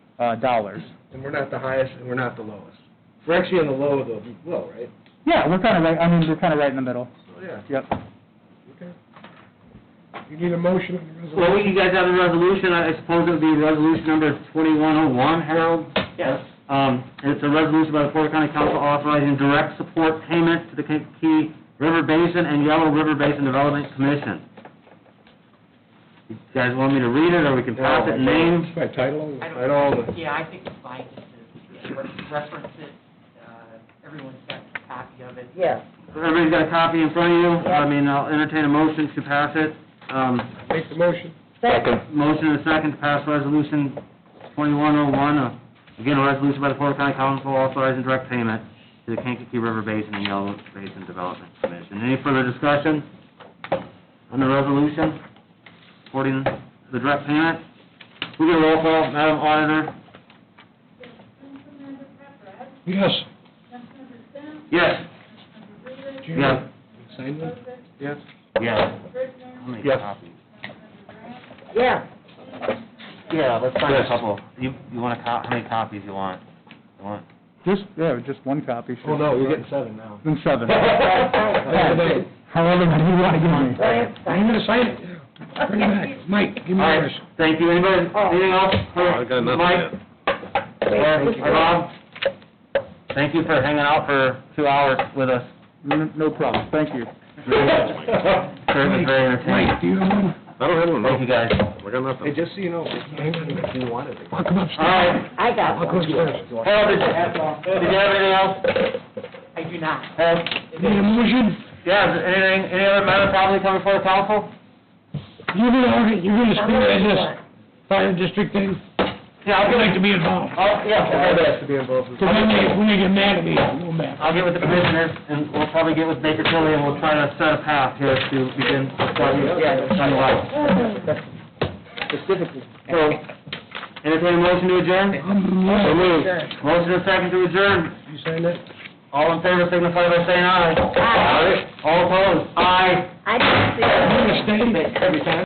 uh, dollars. And we're not the highest, and we're not the lowest. We're actually on the low of the low, right? Yeah, we're kind of right, I mean, we're kind of right in the middle. So, Oh, yeah. Yep. Okay. You need a motion on the Well, resolution? you guys have a resolution, I suppose it would be resolution number 2101, Harold? Yes. Um, It's a resolution by the Porter County Council authorizing direct support payments to the Kankakee River Basin and Yellow River Basin Development Commission. You guys want me to read it, or we can pass it name? By title? I By don't- all the... Yeah, I think it's fine, just to, yeah, let's uh, reference it, uh, everyone's got a copy of it. Yes. Everybody's got a copy in front of you? I mean, I'll entertain a motion to pass it. Um, Make the motion. Second. Motion and a second to pass resolution 2101, uh, again, a resolution by the Porter County Council authorizing direct payment to the Kankakee River Basin and Yellow Basin Development Commission. Any further discussion on the resolution supporting the direct payment? We get a roll call, Madam Auditor? Councilmember Papera, Yes. Councilmember Stan, Yes. Councilmember Reavis, Yeah. Sign them? Joseph, Yes. Yes. Britner, I'll make Yes. copies. Yes. Yeah, let's find a Yes. couple. You, you want a cop, how many copies you want? You want? Just, yeah, just one copy. should- Oh, no, we're getting seven now. Then seven. I need a name. However, many you want to give me. Lance, I'm second. gonna sign it. Bring it back. Mike, give me All right, yours. thank you. Anybody, anything else? I got nothing Mike, Wait, or Rob, thank you for hanging out for two hours with us. N- No problem, thank you. Sure was very entertaining. Mike, do you have one? I don't have one, no. Thank you, guys. I got nothing. Hey, just so you know, if you wanted it. I'll come All upstairs. right, I got I'll one. come upstairs. Harold, did you, did you have anything else? I do not. Harold? Need a motion? Yeah, is there anything, any other matter probably coming before the council? You're gonna, you're gonna I'm gonna speak to sign. this fire district thing? Yeah, I'll I'd get, like to be involved. I'll, yeah, okay. to be involved. Because when they, when they get mad at me, I'll go mad. I'll get with the commissioners, and we'll probably get with Baker Tilly, and we'll try to set a path here to begin, yeah, to sign Specifically. So, entertain a motion to adjourn? I'm So mad. moved. Motion and second to adjourn. You sign that? All in favor signify by saying aye. Aye. All opposed? Aye. I didn't see it. I'm gonna stay. Every time.